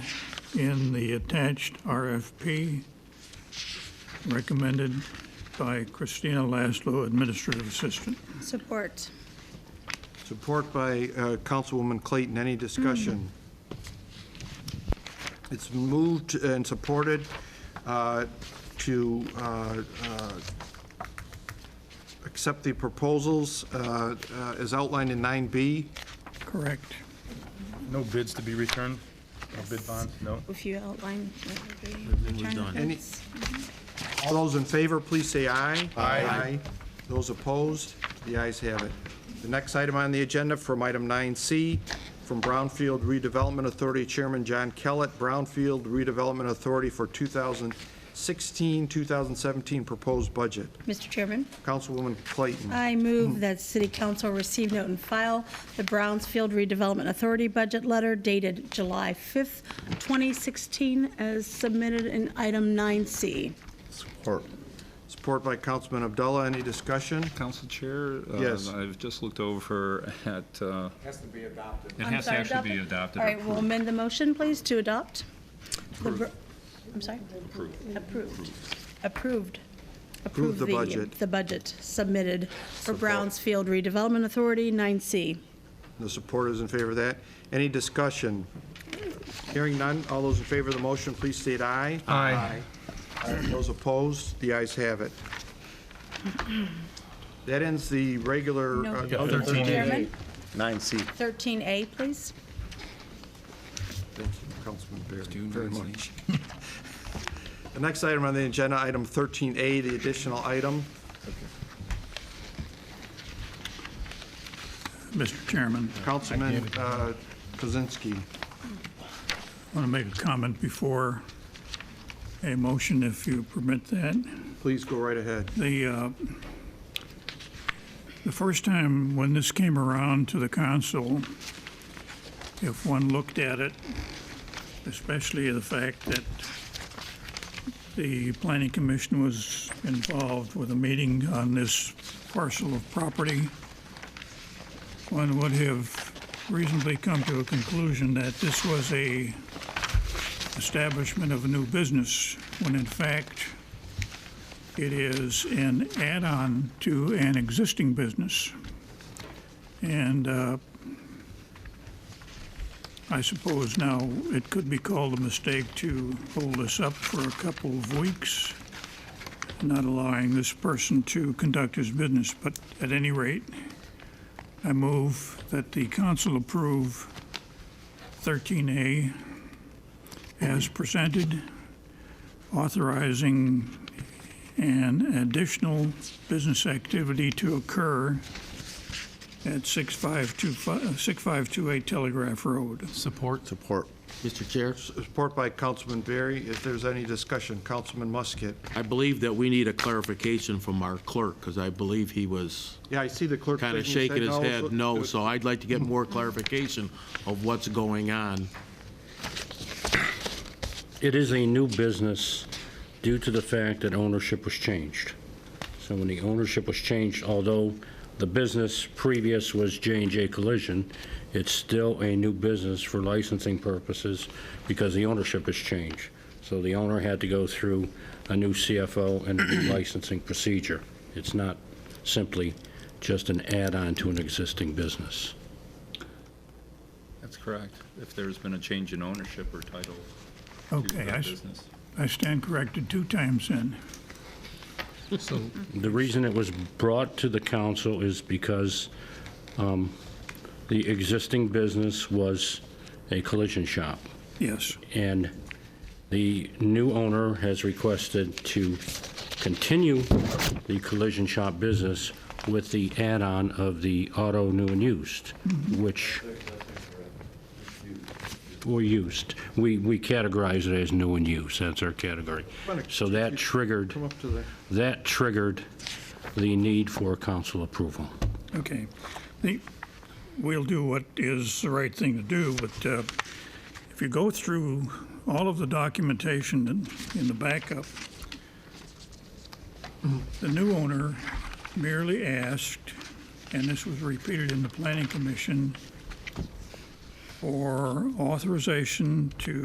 in the attached RFP recommended by Christina Laszlo, Administrative Assistant. Support. Support by uh, Councilwoman Clayton. Any discussion? It's moved and supported uh, to uh, uh, accept the proposals uh, uh, as outlined in 9B. Correct. No bids to be returned? No bid bonds? No? If you outline. Any- All those in favor, please say aye. Aye. Those opposed, the ayes have it. The next item on the agenda from item 9C, from Brownfield Redevelopment Authority Chairman John Kellett, Brownfield Redevelopment Authority for 2016, 2017 proposed budget. Mr. Chairman, Councilwoman Clayton. I move Hmm. that City Council receive, note, and file the Brownsfield Redevelopment Authority budget letter dated July 5th, 2016, as submitted in item 9C. Support. Support by Councilman Abdullah. Any discussion? Council Chair? uh, Yes. I've just looked over at, uh, Has to be adopted. it I'm has to sorry, actually be adopted. All right, we'll approved. amend the motion, please, to adopt. the br- I'm sorry? Approved. Approved. Approved the budget. The budget submitted for Brownsfield Redevelopment Authority, 9C. The supporters in favor of that. Any discussion? Hearing none, all those in favor of the motion, please state aye. Aye. Those opposed, the ayes have it. That ends the regular. No, uh, Mr. other- Chairman, 9C. 13A, please. Thank you, Councilman Barry, very much. The next item on the agenda, item 13A, the additional item. Mr. Chairman, Councilman uh, Kozinski. I want to make a comment before a motion, if you permit that. please go right ahead. The, uh, the first time when this came around to the council, if one looked at it, especially the fact that the planning commission was involved with a meeting on this parcel of property, one would have reasonably come to a conclusion that this was a establishment of a new business, when in fact, it is an add-on to an existing business. And uh, I suppose now it could be called a mistake to hold us up for a couple of weeks, not allowing this person to conduct his business. But at any rate, I move that the council approve 13A as presented, authorizing and additional business activity to occur at 6525 6528 Telegraph Road. Support? Support. Mr. Chair, Support by Councilman Barry. If there's any discussion, Councilman Musket. I believe that we need a clarification from our clerk, because I believe he was Yeah, I see the clerk. kind of shaking shaking his no, so- head no, so I'd like to get more clarification of what's going on. It is a new business due to the fact that ownership was changed. So when the ownership was changed, although the business previous was j and J Collision, it's still a new business for licensing purposes because the ownership has changed. So the owner had to go through a new CFO and a new licensing procedure. It's not simply just an add-on to an existing business. That's correct, if there's been a change in ownership or title to Okay, I that s- business. I stand corrected two times then. The reason it was brought to the council is because um, the existing business was a collision shop, Yes, and the new owner has requested to continue the collision shop business with the add-on of the auto new and used, which, or used. We we categorize it as new and used, that's our category. So that triggered Come up to the. that triggered the need for council approval. okay. The- We'll do what is the right thing to do, but uh, if you go through all of the documentation in- in the backup, the new owner merely asked, and this was repeated in the planning commission, for authorization to